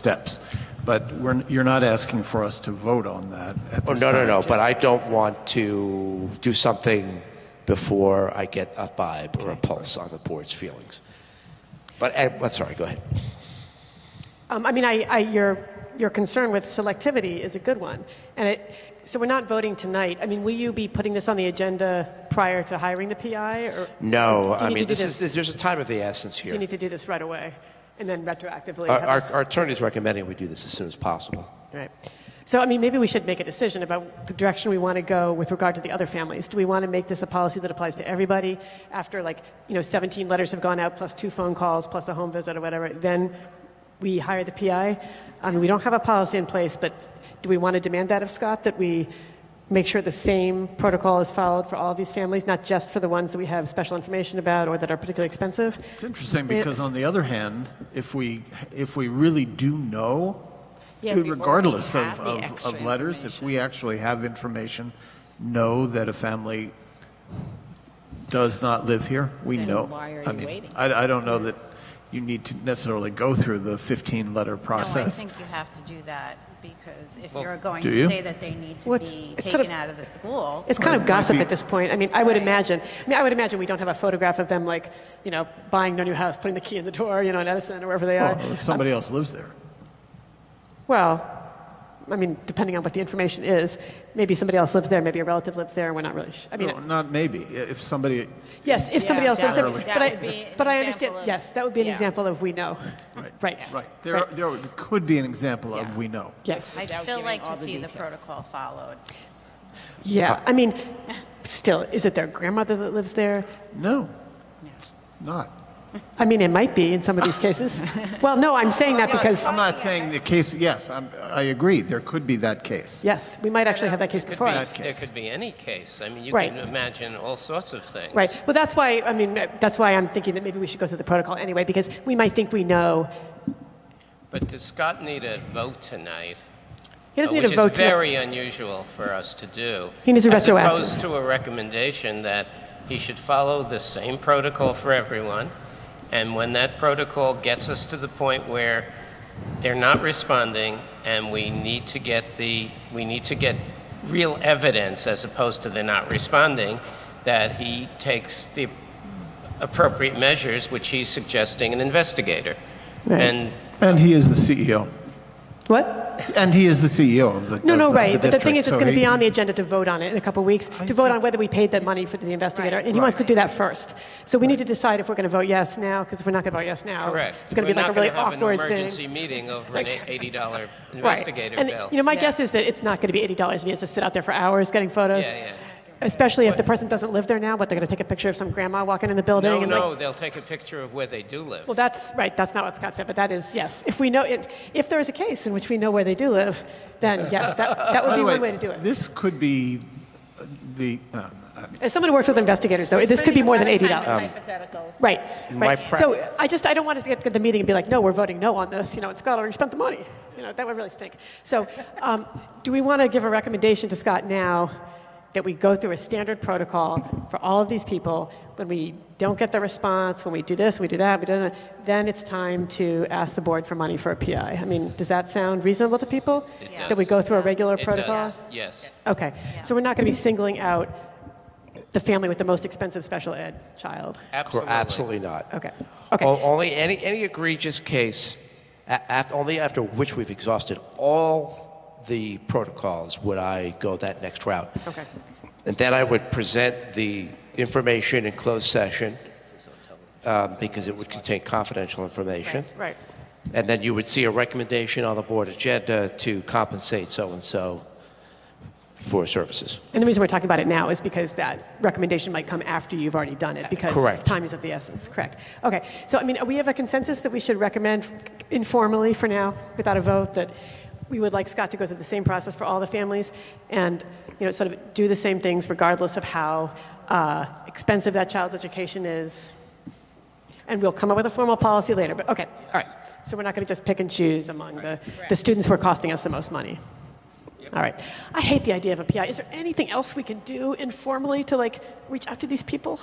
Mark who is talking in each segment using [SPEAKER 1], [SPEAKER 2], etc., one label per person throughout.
[SPEAKER 1] steps. But we're, you're not asking for us to vote on that at
[SPEAKER 2] Oh,
[SPEAKER 1] this
[SPEAKER 2] no, no,
[SPEAKER 1] time.
[SPEAKER 2] no, but I don't want to do something before I get a vibe or a pulse on the board's feelings. But, eh, I'm sorry, go ahead.
[SPEAKER 3] Um, I mean, I, I, your, your concern with selectivity is a good one. And it, so we're not voting tonight. I mean, will you be putting this on the agenda prior to hiring the PI? Or
[SPEAKER 2] No,
[SPEAKER 3] do you
[SPEAKER 2] I
[SPEAKER 3] need to
[SPEAKER 2] mean,
[SPEAKER 3] do
[SPEAKER 2] this is, there's a time of the essence
[SPEAKER 3] So you
[SPEAKER 2] here.
[SPEAKER 3] need to do this right away and then retroactively.
[SPEAKER 2] Our,
[SPEAKER 3] have
[SPEAKER 2] our
[SPEAKER 3] this-
[SPEAKER 2] our attorney's recommending we do this as soon as possible.
[SPEAKER 3] Right. So, I mean, maybe we should make a decision about the direction we want to go with regard to the other families. Do we want to make this a policy that applies to everybody after, like, you know, 17 letters have gone out, plus two phone calls, plus a home visit or whatever? Then we hire the PI. I mean, we don't have a policy in place, but do we want to demand that of Scott that we make sure the same protocol is followed for all of these families, not just for the ones that we have special information about or that are particularly expensive?
[SPEAKER 1] It's interesting because on the other hand, if we, if we really do know,
[SPEAKER 4] Yeah, if we
[SPEAKER 1] regardless
[SPEAKER 4] already
[SPEAKER 1] of,
[SPEAKER 4] have the
[SPEAKER 1] of,
[SPEAKER 4] extra
[SPEAKER 1] of letters, if
[SPEAKER 4] information.
[SPEAKER 1] we actually have information, know that a family does not live here, we
[SPEAKER 4] Then
[SPEAKER 1] know.
[SPEAKER 4] why are
[SPEAKER 1] I
[SPEAKER 4] you
[SPEAKER 1] mean,
[SPEAKER 4] waiting?
[SPEAKER 1] I, I don't know that you need to necessarily go through the 15-letter
[SPEAKER 4] No, Oh, I
[SPEAKER 1] process.
[SPEAKER 4] think you have to do that because if you're going
[SPEAKER 1] Do
[SPEAKER 4] to
[SPEAKER 1] you?
[SPEAKER 4] say that they need
[SPEAKER 3] Well,
[SPEAKER 4] to
[SPEAKER 3] it's-
[SPEAKER 4] be
[SPEAKER 3] it's sort of-
[SPEAKER 4] taken out of the school,
[SPEAKER 3] It's kind
[SPEAKER 1] Or
[SPEAKER 3] of
[SPEAKER 1] it
[SPEAKER 3] gossip
[SPEAKER 1] might be-
[SPEAKER 3] at this point. I mean, I would imagine. I mean, I would imagine we don't have a photograph of them, like you know, buying their new house, putting the key in the door, you know, in Edison or wherever they are.
[SPEAKER 1] Well, if somebody else lives there.
[SPEAKER 3] Well, I mean, depending on what the information is, maybe somebody else lives there, maybe a relative lives there, and we're not really. Sh- I mean,
[SPEAKER 1] No, not maybe. If somebody,
[SPEAKER 3] yes, if somebody
[SPEAKER 4] Yeah,
[SPEAKER 3] else lives
[SPEAKER 4] that
[SPEAKER 3] there,
[SPEAKER 4] would-
[SPEAKER 3] but
[SPEAKER 4] that
[SPEAKER 3] I,
[SPEAKER 4] would be an
[SPEAKER 3] but I understand.
[SPEAKER 4] example of-
[SPEAKER 3] yes, that would be an
[SPEAKER 4] yeah.
[SPEAKER 3] example of we know.
[SPEAKER 1] Right.
[SPEAKER 3] Right.
[SPEAKER 1] Right. There, are- there could be an example of we know.
[SPEAKER 3] Yes.
[SPEAKER 4] I'd still like to see the protocol followed.
[SPEAKER 3] yeah. I mean, still, is it their grandmother that lives there?
[SPEAKER 1] No, it's not.
[SPEAKER 3] I mean, it might be in some of these cases. well, no, I'm saying that because
[SPEAKER 1] I'm not saying the case, yes, I'm, I agree, there could be that case.
[SPEAKER 3] yes, we might actually have that case
[SPEAKER 5] Could
[SPEAKER 3] before
[SPEAKER 5] be-
[SPEAKER 3] us.
[SPEAKER 5] There could be any case. I mean, you
[SPEAKER 3] Right.
[SPEAKER 5] can imagine all sorts of things.
[SPEAKER 3] Right. Well, that's why, I mean, that's why I'm thinking that maybe we should go through the protocol anyway, because we might think we know.
[SPEAKER 5] But does Scott need a vote tonight?
[SPEAKER 3] He doesn't
[SPEAKER 5] Uh,
[SPEAKER 3] need a vote
[SPEAKER 5] Which is
[SPEAKER 3] tonight.
[SPEAKER 5] very unusual for us to do.
[SPEAKER 3] He needs a retroactive.
[SPEAKER 5] As opposed to a recommendation that he should follow the same protocol for everyone, and when that protocol gets us to the point where they're not responding, and we need to get the, we need to get real evidence as opposed to they're not responding, that he takes the appropriate measures, which he's suggesting an investigator.
[SPEAKER 3] Right.
[SPEAKER 5] And
[SPEAKER 1] And he is the CEO.
[SPEAKER 3] What?
[SPEAKER 1] And he is the CEO of the.
[SPEAKER 3] No,
[SPEAKER 1] of
[SPEAKER 3] no,
[SPEAKER 1] the-
[SPEAKER 3] right.
[SPEAKER 1] of
[SPEAKER 3] But the thing
[SPEAKER 1] district,
[SPEAKER 3] is,
[SPEAKER 1] so
[SPEAKER 3] it's going to
[SPEAKER 1] he-
[SPEAKER 3] be on the agenda to vote on it in a couple of weeks, to vote on whether we paid that money for the investigator. And he wants to do that first. So we need to decide if we're going to vote yes now, because if we're not going to vote yes now,
[SPEAKER 5] Correct.
[SPEAKER 3] it's going to be like a really awkward
[SPEAKER 5] We're not going to have an emergency
[SPEAKER 3] thing.
[SPEAKER 5] meeting over an $80
[SPEAKER 3] Right.
[SPEAKER 5] investigator
[SPEAKER 3] And,
[SPEAKER 5] bill.
[SPEAKER 3] you know, my guess is that it's not going to be $80 if he has to sit out there for hours getting photos.
[SPEAKER 5] Yeah, yeah.
[SPEAKER 3] Especially if the person doesn't live there now, but they're going to take a picture of some grandma walking in the building.
[SPEAKER 5] No,
[SPEAKER 3] and like,
[SPEAKER 5] no, they'll take a picture of where they do live.
[SPEAKER 3] Well, that's right. That's not what Scott said, but that is yes. If we know, it, if there is a case in which we know where they do live, then yes, that, that would
[SPEAKER 1] By
[SPEAKER 3] be
[SPEAKER 1] the way,
[SPEAKER 3] one way to do it.
[SPEAKER 1] This could be uh, the, uh,
[SPEAKER 3] As someone who works with investigators, though, this could be more than eighty dollars.
[SPEAKER 1] Um,
[SPEAKER 4] Hypotheticals.
[SPEAKER 3] Right.
[SPEAKER 2] My
[SPEAKER 3] Right. So uh,
[SPEAKER 2] preference-
[SPEAKER 3] I just I don't want us to get to the meeting and be like, no, we're voting no on this. You know, and Scott already spent the money. You know, that would really stink. So, um, do we want to give a recommendation to Scott now that we go through a standard protocol for all of these people? When we don't get the response, when we do this, we do that, we do that, then it's time to ask the board for money for a PI. I mean, does that sound reasonable to people?
[SPEAKER 5] It
[SPEAKER 3] That we go
[SPEAKER 5] does.
[SPEAKER 3] through a regular
[SPEAKER 5] It
[SPEAKER 3] protocol?
[SPEAKER 5] does, Yes.
[SPEAKER 3] Okay. So we're not going to be singling out the family with the most expensive special ed child.
[SPEAKER 5] Absolutely.
[SPEAKER 2] Absolutely not.
[SPEAKER 3] Okay. Okay.
[SPEAKER 2] O- Only any, any egregious case, a- af- only after which we've exhausted all the protocols would I go that next route.
[SPEAKER 3] Okay.
[SPEAKER 2] And then I would present the information in closed session um, because it would contain confidential information.
[SPEAKER 3] Right.
[SPEAKER 2] And then you would see a recommendation on the board agenda to compensate so and so for services.
[SPEAKER 3] And the reason we're talking about it now is because that recommendation might come after you've already done it, because
[SPEAKER 2] Correct.
[SPEAKER 3] time is of the essence. Correct. Okay. So, I mean, we have a consensus that we should recommend informally for now, without a vote, that we would like Scott to go through the same process for all the families and, you know, sort of do the same things regardless of how uh, expensive that child's education is. And we'll come up with a formal policy later. But, okay. All right. So, we're not going to just pick and choose among the, the students who are costing us the most money. All right. I hate the idea of a PI. Is there anything else we can do informally to like reach out to these people?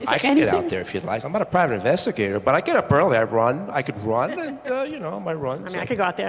[SPEAKER 3] Is
[SPEAKER 2] I
[SPEAKER 3] there
[SPEAKER 2] can get
[SPEAKER 3] anything?
[SPEAKER 2] out there if you'd like. I'm not a private investigator, but I get up early. I run. I could run, and uh, you know, my runs.
[SPEAKER 3] I mean, I could go out there.